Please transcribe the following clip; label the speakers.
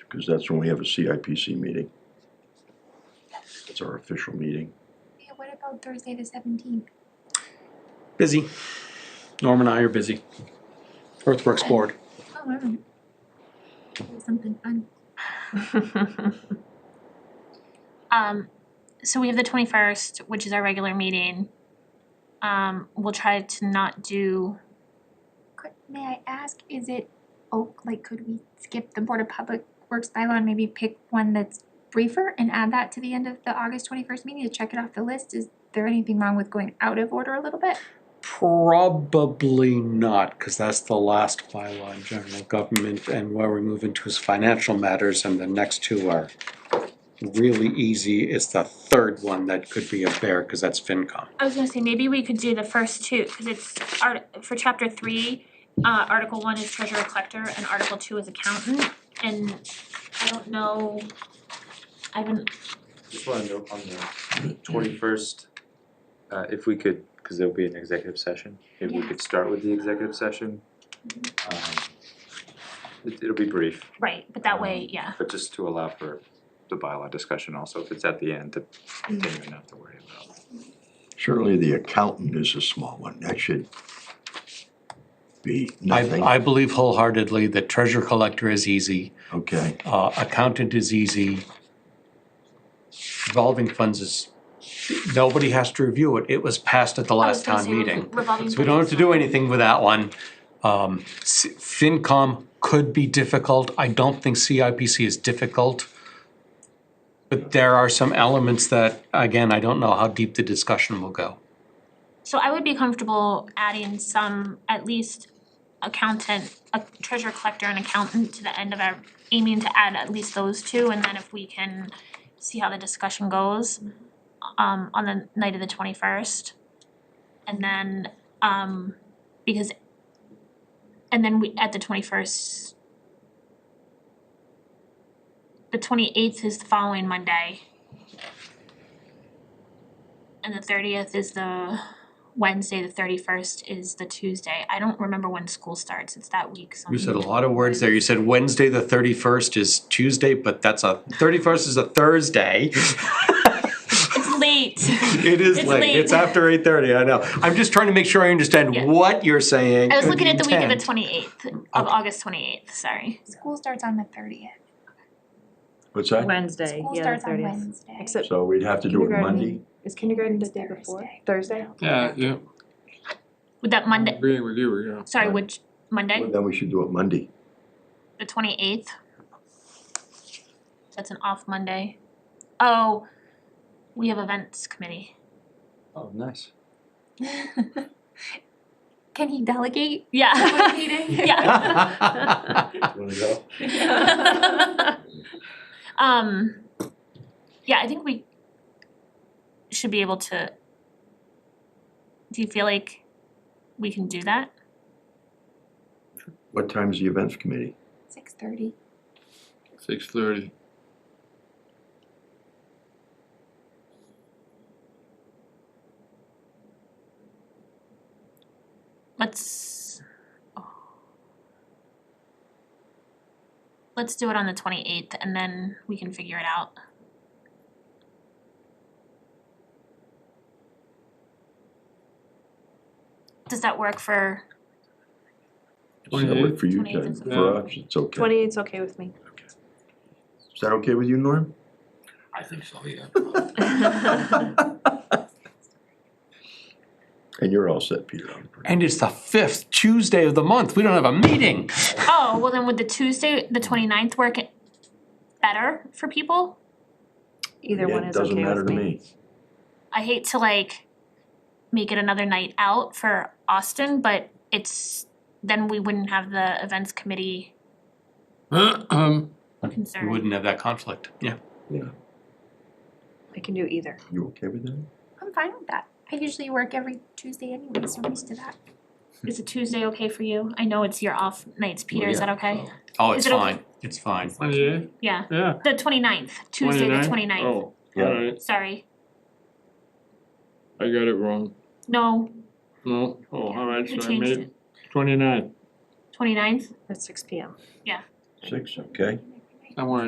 Speaker 1: because that's when we have a CIPC meeting. It's our official meeting.
Speaker 2: Yeah, what about Thursday the seventeenth?
Speaker 3: Busy. Norm and I are busy. Earthworks Board.
Speaker 2: Oh, all right. Do Something fun.
Speaker 4: Um, so we have the twenty-first, which is our regular meeting. Um, we'll try to not do,
Speaker 2: Could, may I ask, is it, oh, like, could we skip the Board of Public Works bylaw and maybe pick one that's briefer and add that to the end of the August twenty-first meeting to check it off the list? Is there anything wrong with going out of order a little bit?
Speaker 3: Probably not, because that's the last bylaw in general government, and where we move into is financial matters, and the next two are really easy. It's the third one that could be a bear, because that's FinCom.
Speaker 4: I was gonna say, maybe we could do the first two, cause it's art, for chapter three, uh, article one is treasurer collector and article two is accountant. And I don't know, I haven't,
Speaker 5: Just wanna note on the twenty-first, uh, if we could, cause there'll be an executive session, if we
Speaker 4: Yeah.
Speaker 5: could start with the executive session. Um, it, it'll be brief,
Speaker 4: right, but that way, yeah.
Speaker 5: but just to allow for the bylaw discussion also, if it's at the end, that then you don't have to worry about.
Speaker 1: Certainly, the accountant is a small one. That should be nothing.
Speaker 6: I, I believe wholeheartedly that treasure collector is easy,
Speaker 1: Okay,
Speaker 6: uh, accountant is easy. Revolving funds is, nobody has to review it, it was passed at the
Speaker 4: I was
Speaker 6: last
Speaker 4: gonna
Speaker 6: town
Speaker 4: say rev-
Speaker 6: meeting.
Speaker 4: revolving
Speaker 6: So we don't have
Speaker 4: doors
Speaker 6: to
Speaker 4: is
Speaker 6: do
Speaker 4: fine.
Speaker 6: anything with that one. Um, S- FinCom could be difficult, I don't think CIPC is difficult. But there are some elements that, again, I don't know how deep the discussion will go.
Speaker 4: So I would be comfortable adding some, at least accountant, a treasurer collector and accountant to the end of our, aiming to add at least those two, and then if we can see how the discussion goes um on the night of the twenty first. And then um because and then we at the twenty first the twenty eighth is the following Monday. And the thirtieth is the Wednesday, the thirty first is the Tuesday. I don't remember when school starts. It's that week, so
Speaker 6: You said a lot of words there. You said Wednesday, the thirty-first is Tuesday, but that's a, thirty-first is a Thursday.
Speaker 4: It's late.
Speaker 6: It is
Speaker 4: It's
Speaker 6: late.
Speaker 4: late.
Speaker 6: It's after eight thirty, I know. I'm just trying to make sure I
Speaker 4: Yeah.
Speaker 6: understand what you're saying.
Speaker 4: I was
Speaker 6: and
Speaker 4: looking at the week of the
Speaker 6: intent.
Speaker 4: twenty eighth of August twenty eighth, sorry.
Speaker 2: School starts on the thirtieth.
Speaker 1: what's that?
Speaker 7: Wednesday,
Speaker 2: School
Speaker 7: yeah, the
Speaker 2: starts on
Speaker 7: thirtieth.
Speaker 2: Wednesday.
Speaker 7: Except
Speaker 1: So we'd have to do it
Speaker 7: Kindergarten.
Speaker 1: Monday?
Speaker 7: is kindergarten the day before, Thursday?
Speaker 8: Yeah, yeah,
Speaker 4: Would that
Speaker 8: I'm
Speaker 4: Monday,
Speaker 8: agreeing with you, yeah.
Speaker 4: sorry, which, Monday,
Speaker 1: Well, Then we should do it Monday.
Speaker 4: the twenty eighth? That's an off Monday. Oh, we have events committee.
Speaker 5: Oh, nice.
Speaker 2: Can he delegate one
Speaker 4: Yeah,
Speaker 2: meeting?
Speaker 4: yeah.
Speaker 5: Wanna go?
Speaker 4: Um, yeah, I think we should be able to. Do you feel like we can do that?
Speaker 1: What time's the events committee?
Speaker 2: Six thirty.
Speaker 8: Six thirty.
Speaker 4: Let's. oh. Let's do it on the twenty eighth and then we can figure it out. Does that work for,
Speaker 1: Does that work for you,
Speaker 4: 28th
Speaker 1: Jen?
Speaker 4: is the
Speaker 1: For us, it's okay.
Speaker 7: Twenty-eight's okay with me.
Speaker 1: Is that okay with you, Norm?
Speaker 8: I think so, yeah.
Speaker 1: And you're all set, Peter. I'm pretty-
Speaker 6: And it's the fifth Tuesday of the month. We don't have a meeting.
Speaker 4: oh, well then would the Tuesday, the twenty ninth work it better for people?
Speaker 7: Either
Speaker 1: Yeah,
Speaker 7: one is okay
Speaker 1: Doesn't matter
Speaker 7: with
Speaker 1: to
Speaker 7: me.
Speaker 1: me.
Speaker 4: I hate to like make it another night out for Austin, but it's, then we wouldn't have the events committee concern.
Speaker 6: We wouldn't have that conflict, yeah.
Speaker 7: I can do either.
Speaker 1: You okay with that?
Speaker 2: I'm fine with that. I usually work every Tuesday anyway, so I'm used to that.
Speaker 4: Is a Tuesday okay for you? I know it's your off nights, Peter, is that okay?
Speaker 6: Oh, it's
Speaker 4: Is it okay?
Speaker 6: fine. It's fine.
Speaker 8: Twenty-eight,
Speaker 4: Yeah,
Speaker 8: yeah.
Speaker 4: the twenty-ninth, Tuesday the
Speaker 8: 29th?
Speaker 4: twenty-ninth,
Speaker 8: Oh, alright,
Speaker 4: sorry,
Speaker 8: I got it wrong.
Speaker 4: no,
Speaker 8: No, oh, alright,
Speaker 4: you
Speaker 8: so I
Speaker 4: changed
Speaker 8: made
Speaker 4: it,
Speaker 8: twenty-nine.
Speaker 4: twenty-ninth?
Speaker 7: At six P M.
Speaker 1: Six, okay.
Speaker 8: I wanna